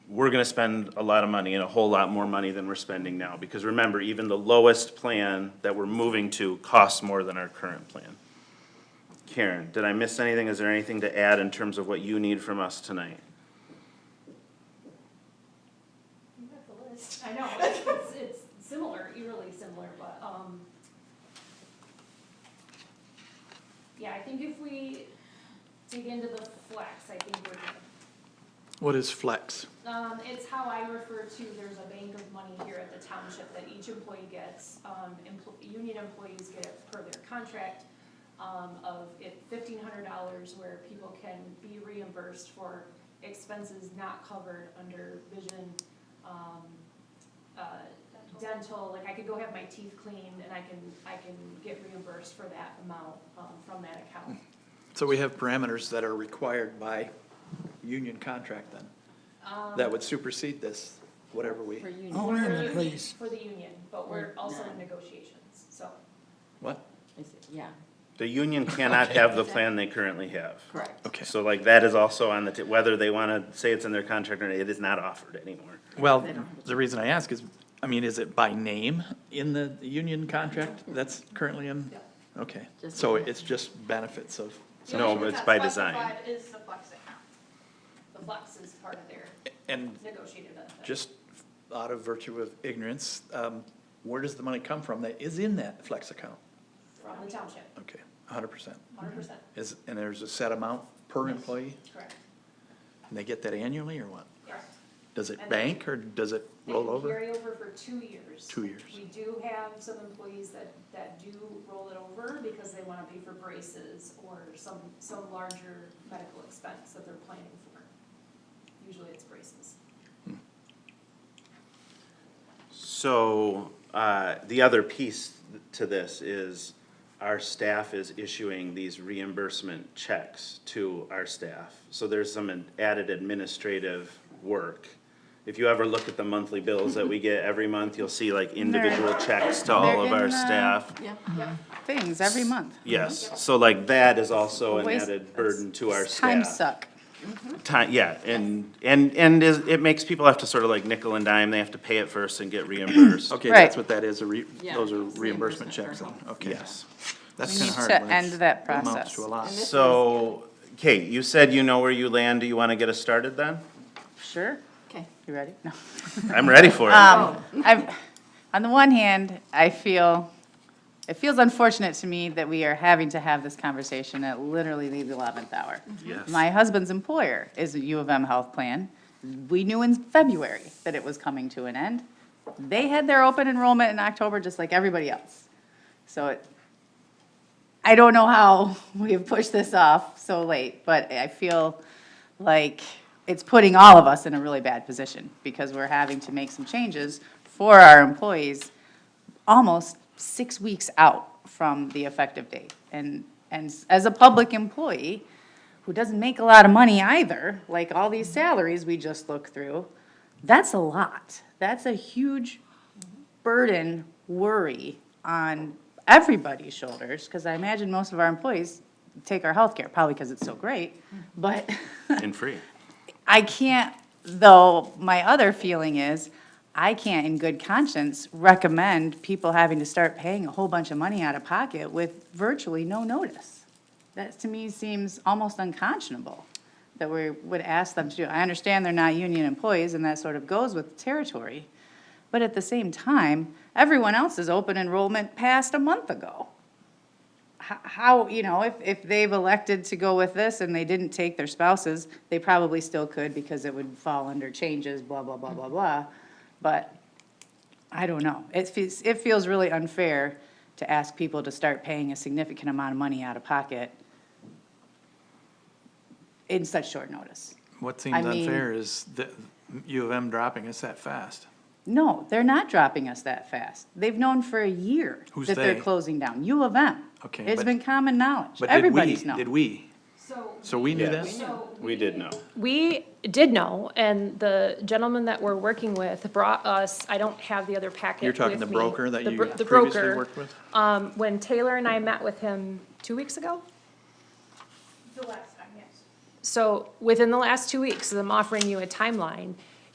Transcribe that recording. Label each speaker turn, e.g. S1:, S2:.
S1: we're gonna spend a lot of money and a whole lot more money than we're spending now. Because remember, even the lowest plan that we're moving to costs more than our current plan. Karen, did I miss anything? Is there anything to add in terms of what you need from us tonight?
S2: You got the list. I know, it's, it's- it's similar, eerily similar, but, um, yeah, I think if we dig into the flex, I think we're good.
S3: What is flex?
S2: Um, it's how I refer to, there's a bank of money here at the township that each employee gets, um, empl- union employees get per their contract, um, of fifteen hundred dollars where people can be reimbursed for expenses not covered under vision, um, uh, dental, like I could go have my teeth cleaned and I can, I can get reimbursed for that amount, um, from that account.
S3: So we have parameters that are required by union contract then, that would supersede this, whatever we,
S4: Um, For union,
S5: Hold on a
S2: For the
S5: minute,
S2: union-
S5: please.
S2: For the union, but we're also in
S4: Yeah.
S2: negotiations, so.
S3: what?
S4: is it, yeah,
S1: The union cannot have the plan they currently have.
S4: correct.
S3: Okay,
S1: So like that is also on the, t- whether they wanna say it's in their contract or not, it is not offered anymore.
S3: well,
S4: They don't have a-
S3: the reason I ask is, I mean, is it by name in the union contract that's currently in? Okay,
S4: Just-
S3: so it's just benefits of,
S2: The
S1: No,
S2: only thing
S1: but it's
S2: that's
S1: by design.
S2: specified Is the flex account. The flex is part of their
S3: and
S2: negotiated uh, benefit.
S3: just out of virtue of ignorance, um, where does the money come from that is in that flex account?
S2: From the township,
S3: Okay, hundred percent.
S2: hundred percent,
S3: Is, and there's a set amount per employee,
S2: correct,
S3: and they get that annually or what?
S2: correct.
S3: Does it
S2: And then-
S3: bank or does it
S2: They
S3: roll
S2: can
S3: over?
S2: Carry over for two years.
S3: Two years.
S2: We do have some employees that, that do roll it over because they wanna pay for braces or some, some larger medical expense that they're planning for. Usually it's braces.
S1: So, uh, the other piece to this is our staff is issuing these reimbursement checks to our staff. So there's some added administrative work. If you ever look at the monthly bills that we get every month, you'll see like individual checks to all of
S6: They're in
S1: our
S6: the-
S1: staff.
S4: Yeah,
S6: things every month.
S1: Yes, so like that is also an
S6: Waste-
S1: added burden to our staff.
S6: Time suck.
S1: Time, yeah, and, and, and is- it makes people have to sort of like nickel and dime, they have to pay it first and get reimbursed.
S3: Okay,
S6: Right.
S3: that's what that is, a re,
S4: Yeah,
S3: those are
S4: it's
S3: reimbursement
S4: reimbursement
S3: checks,
S4: for
S3: then.
S4: health.
S3: okay.
S1: Yes.
S3: That's
S6: We
S3: kinda hard.
S6: need to
S3: when
S6: end
S3: it's-
S6: that
S3: Amounts to a
S6: process.
S3: lot.
S4: this-
S1: So, Kate, you said you know where you land, do you wanna get us started then?
S6: Sure.
S4: okay.
S6: You ready? No.
S1: I'm ready for it.
S6: Um,
S4: Oh,
S6: i on the one hand, I feel, it feels unfortunate to me that we are having to have this conversation at literally the eleventh hour.
S1: Yes.
S6: My husband's employer is a U of M health plan. We knew in February that it was coming to an end. They had their open enrollment in October, just like everybody else. So it, I don't know how we have pushed this off so late, but I feel like it's putting all of us in a really bad position because we're having to make some changes for our employees almost six weeks out from the effective date. And, and as a public employee who doesn't make a lot of money either, like all these salaries we just looked through, that's a lot. That's a huge burden, worry on everybody's shoulders, because I imagine most of our employees take our health care probably because it's so great, but
S1: And free.
S6: I can't, though, my other feeling is, I can't in good conscience recommend people having to start paying a whole bunch of money out of pocket with virtually no notice. That to me seems almost unconscionable that we would ask them to do. I understand they're not union employees and that sort of goes with the territory. But at the same time, everyone else's open enrollment passed a month ago h- how, you know, if, if they've elected to go with this and they didn't take their spouses, they probably still could because it would fall under changes, blah, blah, blah, blah, blah. But I don't know. It feels, it feels really unfair to ask people to start paying a significant amount of money out of pocket in such short notice.
S3: What seems
S6: I mean-
S3: unfair is that U of M dropping us that fast.
S6: No, they're not dropping us that fast. They've known for a year
S3: Who's
S6: that they're
S3: they?
S6: closing down. U of M.
S3: Okay,
S6: It's
S3: but-
S6: been common knowledge.
S3: But did we,
S6: Everybody's known.
S3: did we?
S2: So.
S3: So we knew that?
S2: So
S1: We did know.
S7: We did know, and the gentleman that we're working with brought us, I don't have the other packet
S3: You're talking the
S7: with me.
S3: broker that
S7: The
S3: you
S7: bro- the
S3: previously
S7: broker,
S3: worked with?
S7: Um, when Taylor and I met with him two weeks ago,
S2: The last time, yes.
S7: so within the last two weeks, I'm offering you a timeline.